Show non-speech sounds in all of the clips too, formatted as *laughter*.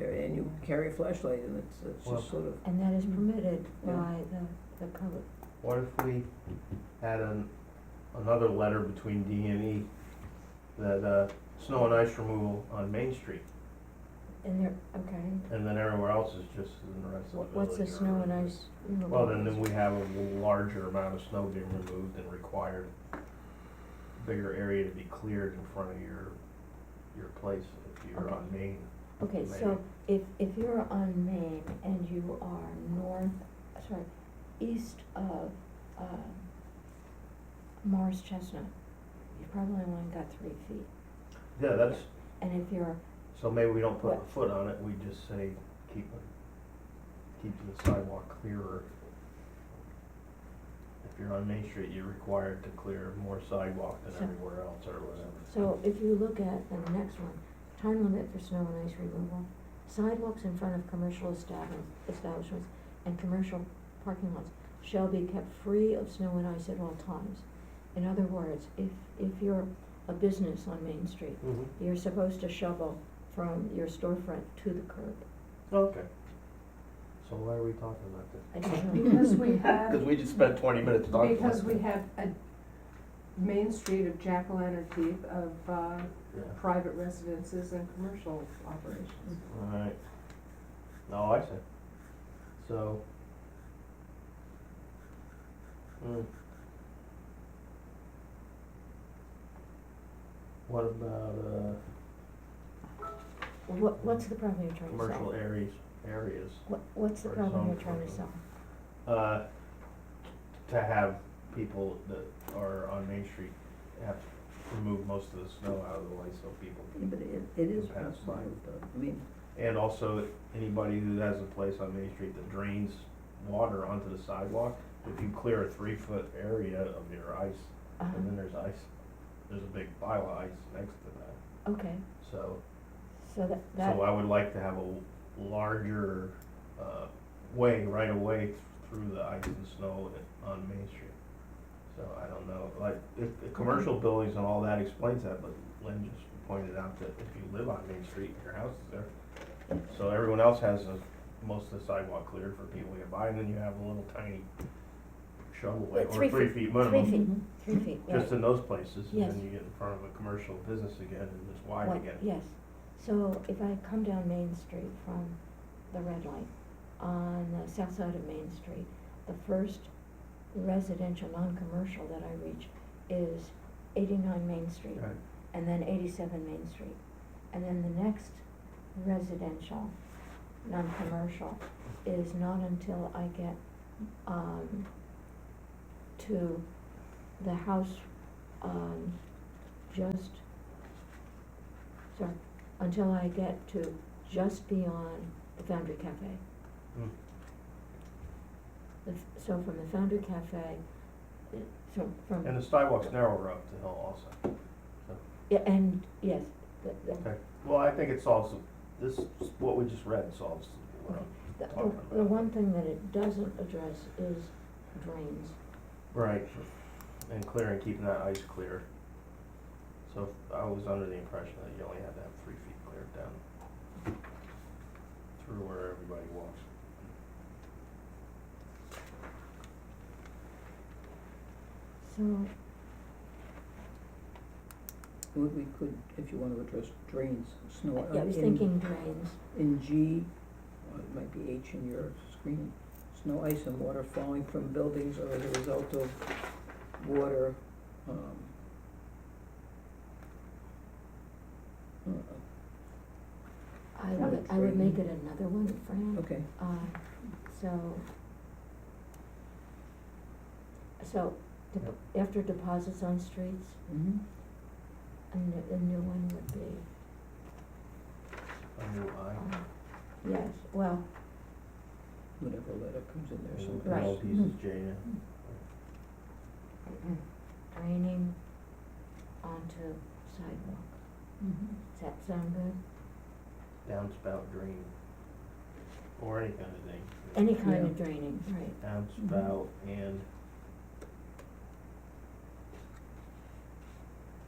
can carry a flashlight and it's, it's Well- just sort of, And that is permitted Yeah. by the, the public. What if we add an, another letter between D and E that, uh, snow and ice removal on Main Street, And there, okay, and then everywhere else is just in the rest of the village. Wh- what's the or- snow and ice? removal? Well, then, then we have a larger amount of snow being removed and required, bigger area to be cleared in front of your, your place if you're on Main. Okay, Maybe. so if, if you're on Main and you are north, sorry, east of, um, Morris Chestnut, you probably only got three feet. Yeah, that's, And if you're, so maybe we don't put a What? foot on it, we just say, keep, it- keep the sidewalk clearer. If you're on Main Street, you're required to clear more sidewalk than So- everywhere else or whatever. so if you look at the next one, time limit for snow and ice removal, sidewalks in front of commercial establishments, establishments and commercial parking lots shall be kept free of snow and ice at all times. In other words, if, if you're a business on Main Street, Mhm. You're supposed to shovel from your storefront to the curb. Okay. So why are we talking about this? I don't know. *laughs* Because we have, Because we just spent twenty minutes talking. about Um, because we it. have a main street of jack-o'-lantern deep of, uh, Yeah. private residences and commercial operations. Alright. Oh, I see. So. Hmm. What about, uh, What, what's the problem you're trying to solve? commercial areas, areas, What, what's the or problem zone you're trying to commercial. solve? uh, to have people that are on Main Street have to remove most of the snow out of the way so people yeah, but it, it is Pass possible, by. though. I mean, And also, anybody who has a place on Main Street that drains water onto the sidewalk, if you clear a three foot area of your ice, Uh-huh. and then there's ice, there's a big pile of ice next to that. Okay, So, so that, that, so I would like to have a larger, uh, way, right away through the ice and snow on Main Street. So I don't know, like, if, the commercial buildings and all that explains that, but Lynn just pointed out that if you live on Main Street, your house is there. So everyone else has a, most of the sidewalk cleared for people to get by, and then you have a little tiny shovel way, Like or three three feet- feet three minimum, feet, three feet, right. just in those places, and Yes. then you get in front of a commercial business again, and it's wide What- again. Yes, so if I come down Main Street from the red light, on the south side of Main Street, the first residential, non-commercial that I reach is eighty-nine Main Street. Right. and then eighty-seven Main Street. And then the next residential, non-commercial, is not until I get, um, to the house, um, just, sorry, until I get to just beyond the Foundry Cafe. Hmm. The f- So from the Foundry Cafe, uh, so from. And the sidewalks narrower up the hill also. Yeah, and, yes, the, the, Okay, well, I think it solves, this, what we just read solves what I'm The, talking the- the about. one thing that it doesn't address is drains. Right, and clearing, keeping that ice clear. So I was under the impression that you only had to have three feet cleared down through where everybody walks. So, we, we could, if you want to address drains, snow. uh, yeah, I was in- thinking drains, In G, or it might be H in your screen, snow, ice, and water falling from buildings or as a result of water, um, uh, I Not would, a I would make drain. it another one, Fran, okay, uh, so. So, dep- after deposits on streets, mhm. a new, a new one would be, I knew I, uh, yes, well, whatever letter comes in there, and so. Right. all these is J N. draining onto sidewalk, Mm-hmm. does that sound good? downspout drain, or any kind of thing. Any kind of Yeah. draining, right, Downspout and,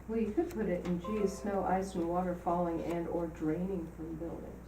Well, you could put it in G, snow, ice, and water falling and/or draining from buildings.